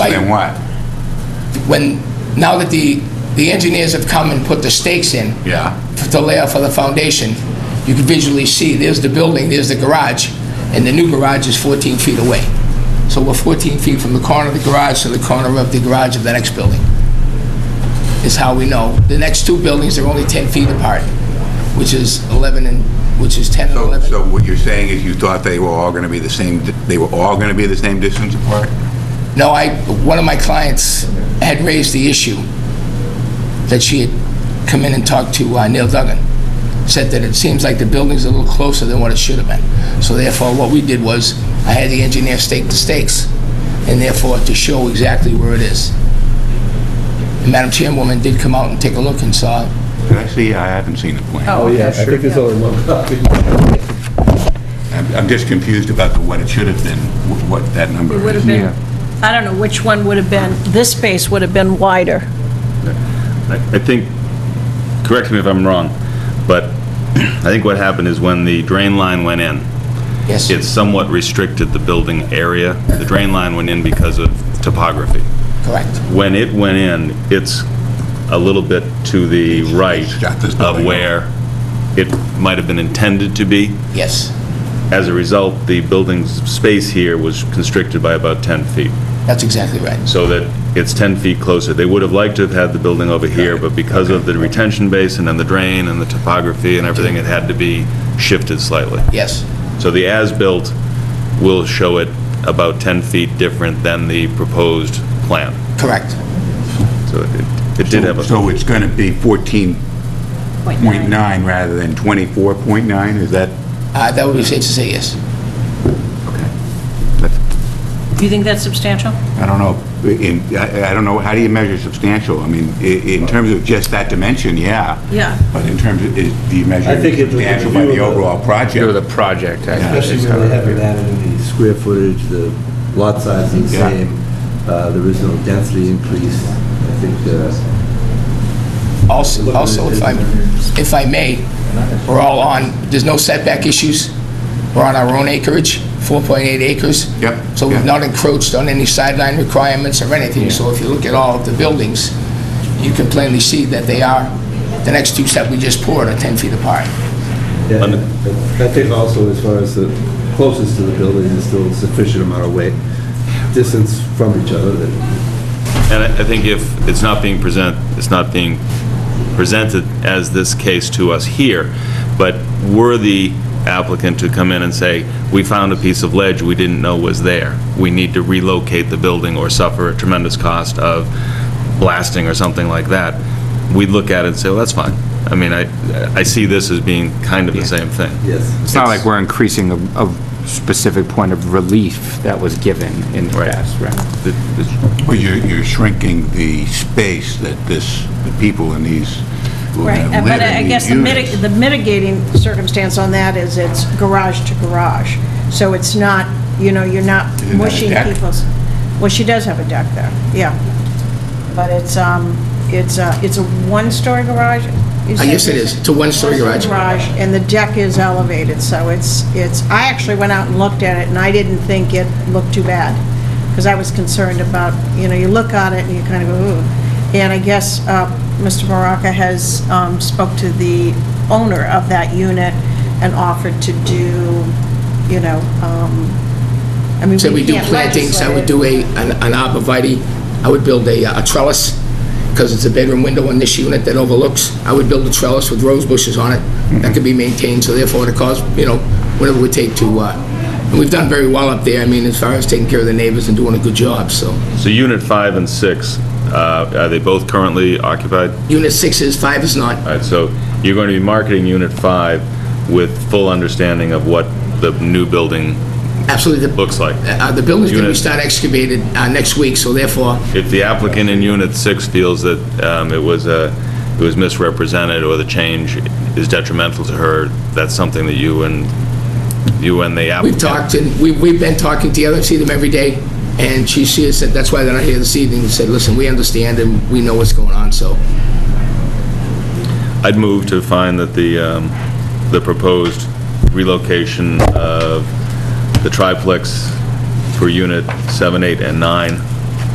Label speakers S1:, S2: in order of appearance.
S1: what?
S2: when, now that the, the engineers have come and put the stakes in.
S1: Yeah.
S2: for- To lay out for the foundation, you can visually see, there's the building, there's the garage, and the new garage is 14 feet away. So we're 14 feet from the corner of the garage to the corner of the garage of the next building, is how we know. The next two buildings are only 10 feet apart, which is 11 and, which is 10 and
S1: So,
S2: 11.
S1: so what you're saying is you thought they were all going to be the same, they were all going to be the same distance apart?
S2: No, I, one of my clients had raised the issue that she had come in and talked to uh, Neil Duggan, said that it seems like the building's a little closer than what it should have been. So therefore, what we did was, I had the engineer stake the stakes, and therefore to show exactly where it is. And Madam Chairwoman did come out and take a look and saw it.
S1: Did I see, I haven't seen the plan.
S3: Oh, yeah, I think there's only one copy.
S1: I'm, I'm just confused about the- what it should have been, wh- what that number
S4: It would have
S1: is.
S4: been, I don't know which one would have been, this space would have been wider.
S5: I I think, correct me if I'm wrong, but I think what happened is when the drain line went in,
S2: Yes.
S5: it somewhat restricted the building area. The drain line went in because of topography.
S2: Correct.
S5: When it went in, it's a little bit to the right
S1: Shut this building
S5: of
S1: up.
S5: where it might have been intended to be.
S2: Yes,
S5: As a result, the building's space here was constricted by about 10 feet,
S2: that's exactly right.
S5: so that it's 10 feet closer. They would have liked to have had the building over here, but because of the retention basin and the drain and the topography and everything, it had to be shifted slightly.
S2: Yes,
S5: So the as-built will show it about 10 feet different than the proposed plan.
S2: correct.
S5: So it- it did have a...
S1: So it's going to be 14.9 rather than 24.9, is that?
S2: Uh, That would be safe to say yes.
S1: that's-
S4: Do you think that's substantial?
S1: I don't know, in, I, I don't know, how do you measure substantial? I mean, i- in terms of just that dimension, yeah.
S4: Yeah.
S1: But in terms of, is, do you measure
S3: I think it was the
S1: substantial by
S3: view
S1: the
S3: of the-
S1: overall project?
S6: Go to the project, I
S1: Yeah.
S6: think.
S3: Especially when they haven't added the square footage, the lot size is the
S1: Yeah.
S3: same, uh, there is no density increase, I think, uh,
S2: Also, also, if I, if I may, we're all on, there's no setback issues. We're on our own acreage, 4.8 acres.
S1: Yep,
S2: So
S1: yeah.
S2: we've not encroached on any sideline requirements or anything. So if you look at all of the buildings, you can plainly see that they are, the next two that we just poured are 10 feet apart.
S3: yeah, I think also as far as the closest to the building is still a sufficient amount of weight, distance from each other, that
S5: And I I think if it's not being present, it's not being presented as this case to us here, but were the applicant to come in and say, "We found a piece of ledge we didn't know was there. We need to relocate the building or suffer a tremendous cost of blasting or something like that," we'd look at it and say, "Well, that's fine." I mean, I, I see this as being kind of the same thing.
S3: yes.
S6: It's not like we're increasing a, a specific point of relief that was given in the
S5: Right.
S6: past, right?
S5: Th- th-
S1: Well, you're, you're shrinking the space that this, the people in these, who are
S4: Right,
S1: gonna
S4: and- but
S1: live
S4: I I
S1: in
S4: guess
S1: these
S4: the miti-
S1: units.
S4: the mitigating circumstance on that is it's garage to garage, so it's not, you know, you're not
S1: it have a
S4: mushing
S1: deck?
S4: people's... Well, she does have a deck there, yeah. But it's, um, it's a, it's a one-story garage? you
S2: Uh,
S4: said?
S2: Yes, it is. It's a one-story garage.
S4: garage, and the deck is elevated, so it's, it's, I actually went out and looked at it, and I didn't think it looked too bad, because I was concerned about, you know, you look on it and you kind of go, ooh. And I guess uh, Mr. Baraka has um, spoke to the owner of that unit and offered to do, you know, um, I mean,
S2: Say we
S4: we
S2: do
S4: can't
S2: plantings, I would
S4: legislate it.
S2: do a, an an arborvitae, I would build a uh, a trellis, because it's a bedroom window in this unit that overlooks, I would build a trellis with rose bushes on it, that could be maintained, so therefore it costs, you know, whatever it would take to, uh, and we've done very well up there, I mean, as far as taking care of the neighbors and doing a good job, so.
S5: So Unit 5 and 6, uh, are they both currently occupied?
S2: Unit six is, five is not,
S5: All right, so you're going to be marketing Unit 5 with full understanding of what the new building
S2: absolutely, the,
S5: looks like.
S2: uh, the building's gonna be
S5: Unit-
S2: start excavated uh, next week, so therefore,
S5: If the applicant in Unit 6 feels that um, it was uh, it was misrepresented or the change is detrimental to her, that's something that you and, you and the
S2: We've
S5: applicant...
S2: talked, and we- we've been talking together, see them every day, and she she has said, that's why they're not here this evening, said, listen, we understand and we know what's going on, so.
S5: I'd move to find that the, um, the proposed relocation of the triplex for Unit 7, 8, and 9